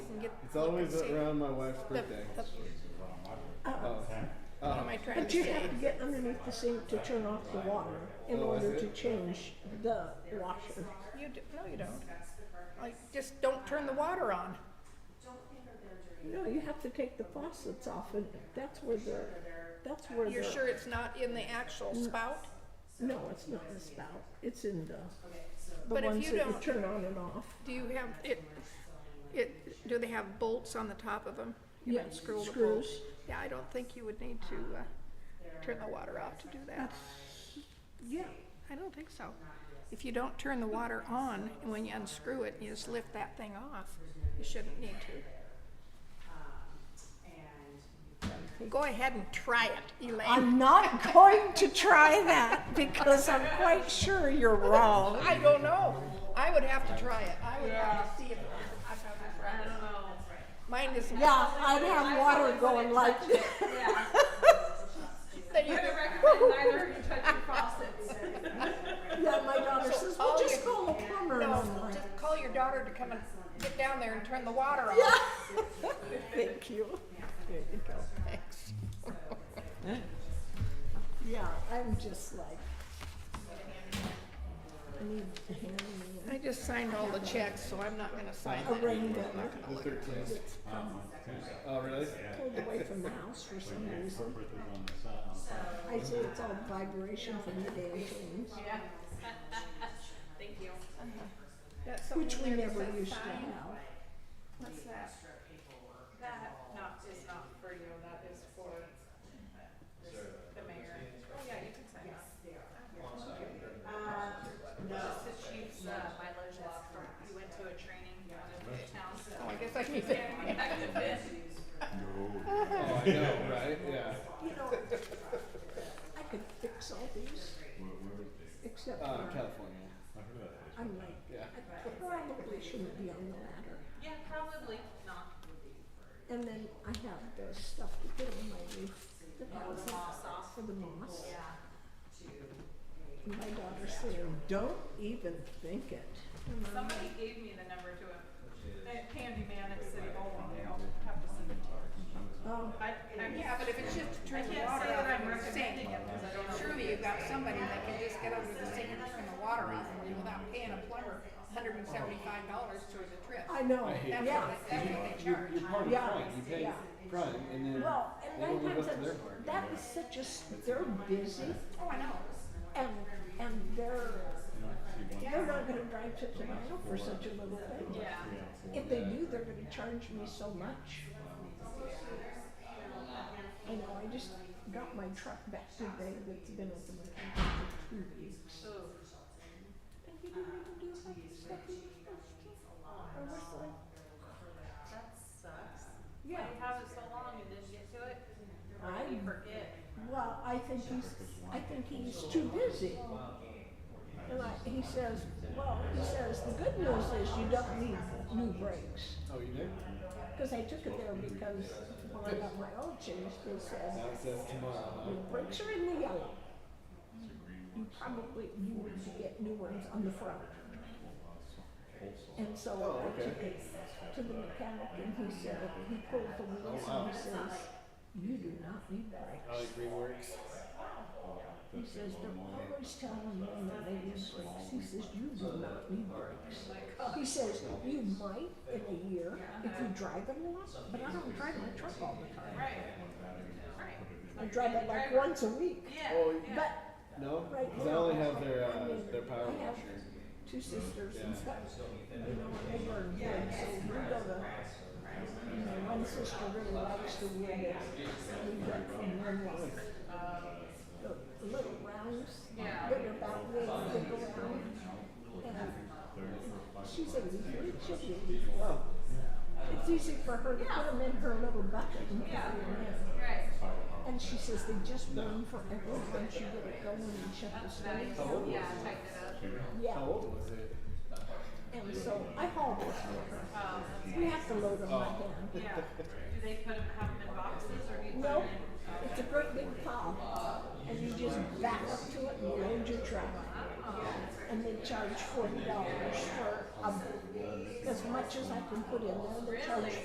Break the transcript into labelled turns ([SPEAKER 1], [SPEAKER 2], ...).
[SPEAKER 1] It's always
[SPEAKER 2] See,
[SPEAKER 1] around my wife's
[SPEAKER 2] the-
[SPEAKER 1] birthday.
[SPEAKER 2] the-
[SPEAKER 1] Oh.
[SPEAKER 2] What am
[SPEAKER 1] Oh.
[SPEAKER 2] I trying to
[SPEAKER 3] But you
[SPEAKER 2] say?
[SPEAKER 3] have to get underneath the sink to turn off the water in
[SPEAKER 1] Oh, is
[SPEAKER 3] order
[SPEAKER 1] it?
[SPEAKER 3] to change the washer.
[SPEAKER 2] You d no, you don't. Like, just don't turn the water on.
[SPEAKER 3] No, you have to take the faucets off and that's where the, that's where the.
[SPEAKER 2] You're sure it's not in the actual spout?
[SPEAKER 3] No, it's not the spout, it's in the,
[SPEAKER 2] But
[SPEAKER 3] the
[SPEAKER 2] if
[SPEAKER 3] ones
[SPEAKER 2] you
[SPEAKER 3] that you
[SPEAKER 2] don't-
[SPEAKER 3] turn on and off.
[SPEAKER 2] Do you have, it, it, do they have bolts on the top of them? You
[SPEAKER 3] Yeah,
[SPEAKER 2] unscrew the bolt.
[SPEAKER 3] screws.
[SPEAKER 2] Yeah, I don't think you would need to, uh, turn the water off to do that.
[SPEAKER 3] Yeah,
[SPEAKER 2] I don't think so. If you don't turn the water on, and when you unscrew it, you just lift that thing off, you shouldn't need to. Go ahead and try it, Elaine.
[SPEAKER 3] I'm not going to try that because I'm quite sure you're wrong.
[SPEAKER 2] I don't know. I would have to try it. I would have to see if I found it right. I don't know. Mine is.
[SPEAKER 3] Yeah, I'd have water going like this.
[SPEAKER 2] That you-
[SPEAKER 4] neither of you touch your faucets.
[SPEAKER 3] Yeah, my daughter says, well,
[SPEAKER 2] all
[SPEAKER 3] just
[SPEAKER 2] your-
[SPEAKER 3] call a plumber and
[SPEAKER 2] No,
[SPEAKER 3] I'm like,
[SPEAKER 2] just call your daughter to come and get down there and turn the water on.
[SPEAKER 3] thank you. There you go.
[SPEAKER 2] Thanks.
[SPEAKER 3] Yeah, I'm just like, I need to hand me
[SPEAKER 2] I just signed all the checks, so I'm not gonna sign
[SPEAKER 3] a
[SPEAKER 2] that.
[SPEAKER 3] rain gun.
[SPEAKER 1] The thirteenth. Oh, really?
[SPEAKER 3] Pulled away from the house for some reason. I say it's all vibration from the damn things,
[SPEAKER 4] Thank you.
[SPEAKER 2] That's something
[SPEAKER 3] which we
[SPEAKER 2] there that
[SPEAKER 3] never
[SPEAKER 2] says
[SPEAKER 3] used to
[SPEAKER 2] sign.
[SPEAKER 3] have.
[SPEAKER 2] What's that?
[SPEAKER 4] That not, is not for you, that is for the mayor. Oh, yeah, you can sign that. Uh, Just that she's, uh, mileage law firm, we went to a training out of town.
[SPEAKER 2] Oh, I guess I can fit.
[SPEAKER 1] Oh, I know, right? Yeah.
[SPEAKER 3] You know, I could fix all these, except
[SPEAKER 1] Uh,
[SPEAKER 3] for,
[SPEAKER 1] California.
[SPEAKER 3] I'm like,
[SPEAKER 1] Yeah.
[SPEAKER 3] I probably shouldn't be on the ladder.
[SPEAKER 4] Yeah, probably not.
[SPEAKER 3] And then I have the stuff to put on my roof, the moss
[SPEAKER 4] off.
[SPEAKER 3] for the moss.
[SPEAKER 4] Yeah.
[SPEAKER 3] And My daughter said, don't even think it. And I'm
[SPEAKER 4] Somebody gave me the number to a, a candy man at City Hall one day, I'll have to send it to her.
[SPEAKER 3] Oh,
[SPEAKER 4] I, I'm,
[SPEAKER 2] Yeah, but if it's just to
[SPEAKER 4] I
[SPEAKER 2] turn the
[SPEAKER 4] can't
[SPEAKER 2] water
[SPEAKER 4] say
[SPEAKER 2] off
[SPEAKER 4] that I'm
[SPEAKER 2] and the
[SPEAKER 4] recommending
[SPEAKER 2] sink,
[SPEAKER 4] it, because I don't know.
[SPEAKER 2] surely you've got somebody that can just get under the sink and turn the water off for you without paying a plumber hundred and seventy-five dollars towards a trip.
[SPEAKER 3] I know,
[SPEAKER 1] I hate
[SPEAKER 2] That's
[SPEAKER 3] yeah.
[SPEAKER 2] what, they- that's what they
[SPEAKER 1] You're, you're
[SPEAKER 2] charge.
[SPEAKER 1] part of
[SPEAKER 3] Yeah.
[SPEAKER 1] Prime. You pay
[SPEAKER 3] Yeah.
[SPEAKER 1] Prime, and then
[SPEAKER 3] Well,
[SPEAKER 1] they don't
[SPEAKER 3] and
[SPEAKER 1] live
[SPEAKER 3] nine
[SPEAKER 1] up
[SPEAKER 3] times
[SPEAKER 1] to their
[SPEAKER 3] that's,
[SPEAKER 1] part.
[SPEAKER 3] that is such a, s- they're busy
[SPEAKER 2] Oh, I know.
[SPEAKER 3] and, and they're, they're not gonna drive to Toronto for such a little thing.
[SPEAKER 4] yeah.
[SPEAKER 3] If they do, they're gonna charge me so much. I know, I just got my truck back today that's been at the mechanic for two weeks.
[SPEAKER 4] Ooh.
[SPEAKER 3] And he didn't even do half the stuff he was supposed to. I was like,
[SPEAKER 4] That sucks. Why
[SPEAKER 3] yeah,
[SPEAKER 4] you have it so long and didn't get to it?
[SPEAKER 3] I,
[SPEAKER 4] You forget.
[SPEAKER 3] well, I think he's, I think he's too busy. And I, he says, well, he says, the good news is you don't need new brakes.
[SPEAKER 1] Oh, you do?
[SPEAKER 3] Cause I took it there because when I got my oil changed, they said,
[SPEAKER 1] Now it says tomorrow.
[SPEAKER 3] your brakes are in the yellow. You probably, you need to get new ones on the front. And so
[SPEAKER 1] Oh,
[SPEAKER 3] I
[SPEAKER 1] okay.
[SPEAKER 3] took it to the mechanic and he said, he pulled the wheels
[SPEAKER 1] Oh,
[SPEAKER 3] and he says, you do not need
[SPEAKER 1] I
[SPEAKER 3] brakes.
[SPEAKER 1] like reworks.
[SPEAKER 3] He says, they're always telling me that they need brakes. He says, you do not need brakes. He says, you might in a year if you drive it a lot, but I don't drive my truck all the time.
[SPEAKER 4] Right. Right.
[SPEAKER 3] I drive it like once a week.
[SPEAKER 4] Yeah.
[SPEAKER 1] Oh,
[SPEAKER 4] yeah.
[SPEAKER 3] But
[SPEAKER 1] No?
[SPEAKER 3] Right.
[SPEAKER 1] Because I only have their,
[SPEAKER 3] I
[SPEAKER 1] uh,
[SPEAKER 3] mean,
[SPEAKER 1] their power
[SPEAKER 3] I have
[SPEAKER 1] washer.
[SPEAKER 3] Two sisters and stuff, you know, and they were good, so we go to, you know, one sister really likes the wood, we got from one wife. The little rounds,
[SPEAKER 4] Yeah.
[SPEAKER 3] bigger back, they, they go around, and she's eighty-three, she'll be eighty-four.
[SPEAKER 1] Oh,
[SPEAKER 3] It's easy for her to put them in her little bucket and put
[SPEAKER 4] Yeah.
[SPEAKER 3] them in.
[SPEAKER 4] Right.
[SPEAKER 3] And she says they just burn forever once you get it going and shut the stove
[SPEAKER 4] Nice.
[SPEAKER 1] old
[SPEAKER 4] Yeah,
[SPEAKER 1] was it?
[SPEAKER 4] tighten it up.
[SPEAKER 3] Yeah,
[SPEAKER 1] how old was it?
[SPEAKER 3] and so I hauled it for
[SPEAKER 4] Um,
[SPEAKER 3] her. We have to load them by hand.
[SPEAKER 4] yeah. Do they put them, have them in boxes or do you put
[SPEAKER 3] No,
[SPEAKER 4] them in?
[SPEAKER 3] it's a great big pile, and you just back up to it and load your truck. And they charge forty dollars for a, as much as I can put in there, they charge